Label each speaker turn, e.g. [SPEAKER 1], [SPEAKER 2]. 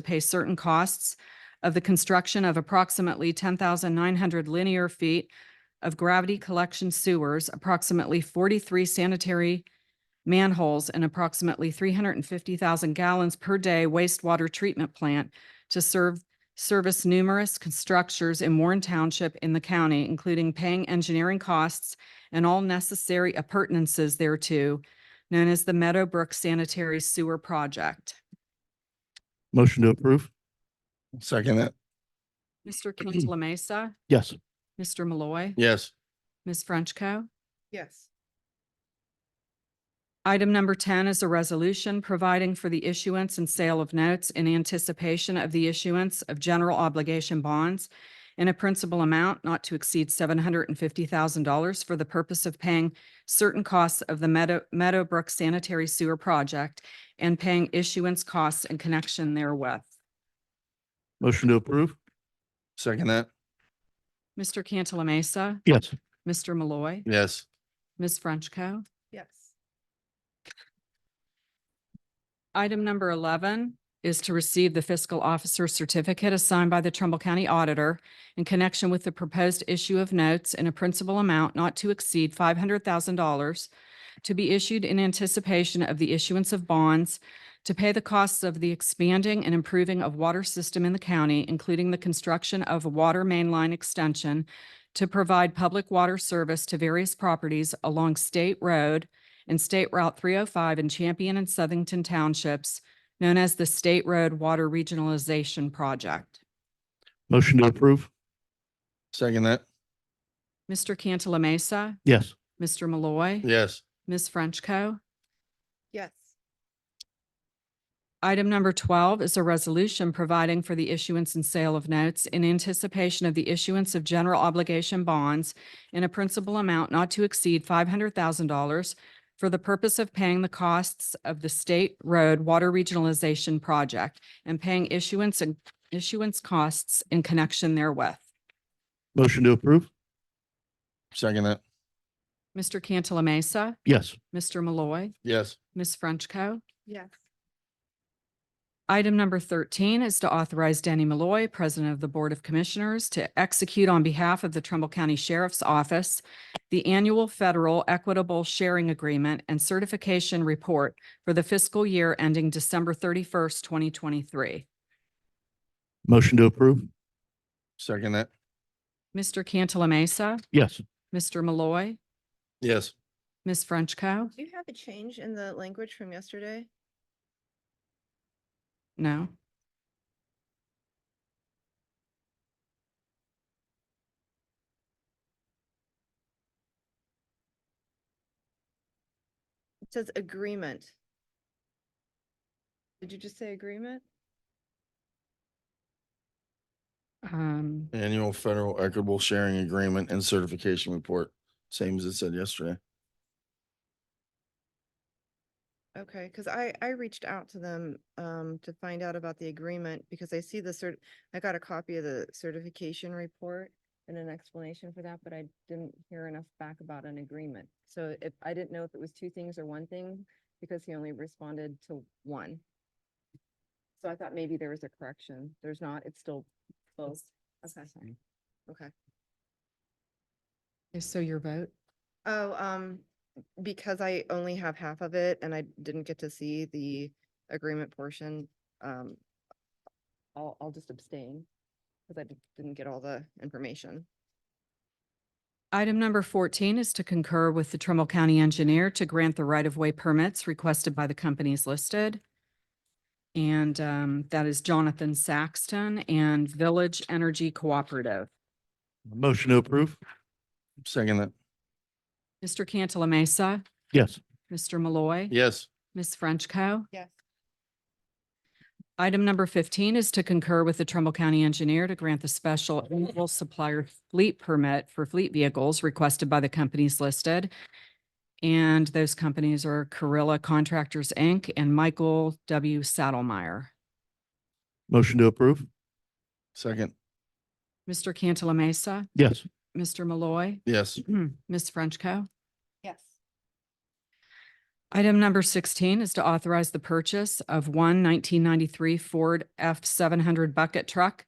[SPEAKER 1] to pay certain costs of the construction of approximately ten thousand nine hundred linear feet of gravity collection sewers, approximately forty-three sanitary manholes, and approximately three hundred and fifty thousand gallons per day wastewater treatment plant to serve, service numerous structures in Warren Township in the county, including paying engineering costs and all necessary appurtenances thereto, known as the Meadowbrook Sanitary Sewer Project.
[SPEAKER 2] Motion to approve. Second that.
[SPEAKER 1] Mr. Cantala Mesa,
[SPEAKER 2] Yes.
[SPEAKER 1] Mr. Malloy,
[SPEAKER 2] Yes.
[SPEAKER 1] Ms. Frenchco.
[SPEAKER 3] yes,
[SPEAKER 1] Item number ten is a resolution providing for the issuance and sale of notes in anticipation of the issuance of general obligation bonds in a principal amount not to exceed seven hundred and fifty thousand dollars for the purpose of paying certain costs of the Meadow, Meadowbrook Sanitary Sewer Project and paying issuance costs in connection therewith.
[SPEAKER 2] Motion to approve. Second that.
[SPEAKER 1] Mr. Cantala Mesa,
[SPEAKER 2] Yes.
[SPEAKER 1] Mr. Malloy,
[SPEAKER 2] Yes.
[SPEAKER 1] Ms. Frenchco.
[SPEAKER 3] yes,
[SPEAKER 1] Item number eleven is to receive the fiscal officer certificate assigned by the Trumbull County Auditor in connection with the proposed issue of notes in a principal amount not to exceed five hundred thousand dollars to be issued in anticipation of the issuance of bonds to pay the costs of the expanding and improving of water system in the county, including the construction of a water main line extension to provide public water service to various properties along State Road and State Route three oh five in Champion and Southington Townships, known as the State Road Water Regionalization Project.
[SPEAKER 2] Motion to approve. Second that.
[SPEAKER 1] Mr. Cantala Mesa,
[SPEAKER 2] Yes.
[SPEAKER 1] Mr. Malloy,
[SPEAKER 2] Yes.
[SPEAKER 1] Ms. Frenchco.
[SPEAKER 3] yes,
[SPEAKER 1] Item number twelve is a resolution providing for the issuance and sale of notes in anticipation of the issuance of general obligation bonds in a principal amount not to exceed five hundred thousand dollars for the purpose of paying the costs of the State Road Water Regionalization Project and paying issuance and issuance costs in connection therewith.
[SPEAKER 2] Motion to approve. Second that.
[SPEAKER 1] Mr. Cantala Mesa,
[SPEAKER 2] Yes.
[SPEAKER 1] Mr. Malloy,
[SPEAKER 2] Yes.
[SPEAKER 1] Ms. Frenchco.
[SPEAKER 3] yes,
[SPEAKER 1] Item number thirteen is to authorize Danny Malloy, President of the Board of Commissioners, to execute on behalf of the Trumbull County Sheriff's Office the annual federal equitable sharing agreement and certification report for the fiscal year ending December thirty-first, twenty twenty-three.
[SPEAKER 2] Motion to approve. Second that.
[SPEAKER 1] Mr. Cantala Mesa,
[SPEAKER 2] Yes.
[SPEAKER 1] Mr. Malloy,
[SPEAKER 2] Yes.
[SPEAKER 1] Ms. Frenchco.
[SPEAKER 3] do you have a change in the language from yesterday?
[SPEAKER 1] No.
[SPEAKER 3] It says agreement. Did you just say agreement?
[SPEAKER 1] Um,
[SPEAKER 2] Annual Federal Equitable Sharing Agreement and Certification Report, same as it said yesterday.
[SPEAKER 3] Okay, because I, I reached out to them, um, to find out about the agreement, because I see the cert, I got a copy of the certification report and an explanation for that, but I didn't hear enough back about an agreement. So if, I didn't know if it was two things or one thing, because he only responded to one. So I thought maybe there was a correction. There's not, it's still both. Okay, okay.
[SPEAKER 1] so your vote?
[SPEAKER 3] Oh, um, because I only have half of it and I didn't get to see the agreement portion, um, I'll, I'll just abstain because I di- didn't get all the information.
[SPEAKER 1] Item number fourteen is to concur with the Trumbull County Engineer to grant the right-of-way permits requested by the companies listed. And um, that is Jonathan Saxton and Village Energy Cooperative.
[SPEAKER 2] Motion to approve. Second that.
[SPEAKER 1] Mr. Cantala Mesa,
[SPEAKER 2] Yes.
[SPEAKER 1] Mr. Malloy,
[SPEAKER 2] Yes.
[SPEAKER 1] Ms. Frenchco.
[SPEAKER 3] Yes.
[SPEAKER 1] Item number fifteen is to concur with the Trumbull County Engineer to grant the special annual supplier fleet permit for fleet vehicles requested by the companies listed. And those companies are Carrilla Contractors, Inc. and Michael W. Saddlemeyer.
[SPEAKER 2] Motion to approve. Second.
[SPEAKER 1] Mr. Cantala Mesa,
[SPEAKER 2] Yes.
[SPEAKER 1] Mr. Malloy,
[SPEAKER 2] Yes.
[SPEAKER 1] Ms. Frenchco.
[SPEAKER 3] Yes.
[SPEAKER 1] Item number sixteen is to authorize the purchase of one 1993 Ford F seven hundred bucket truck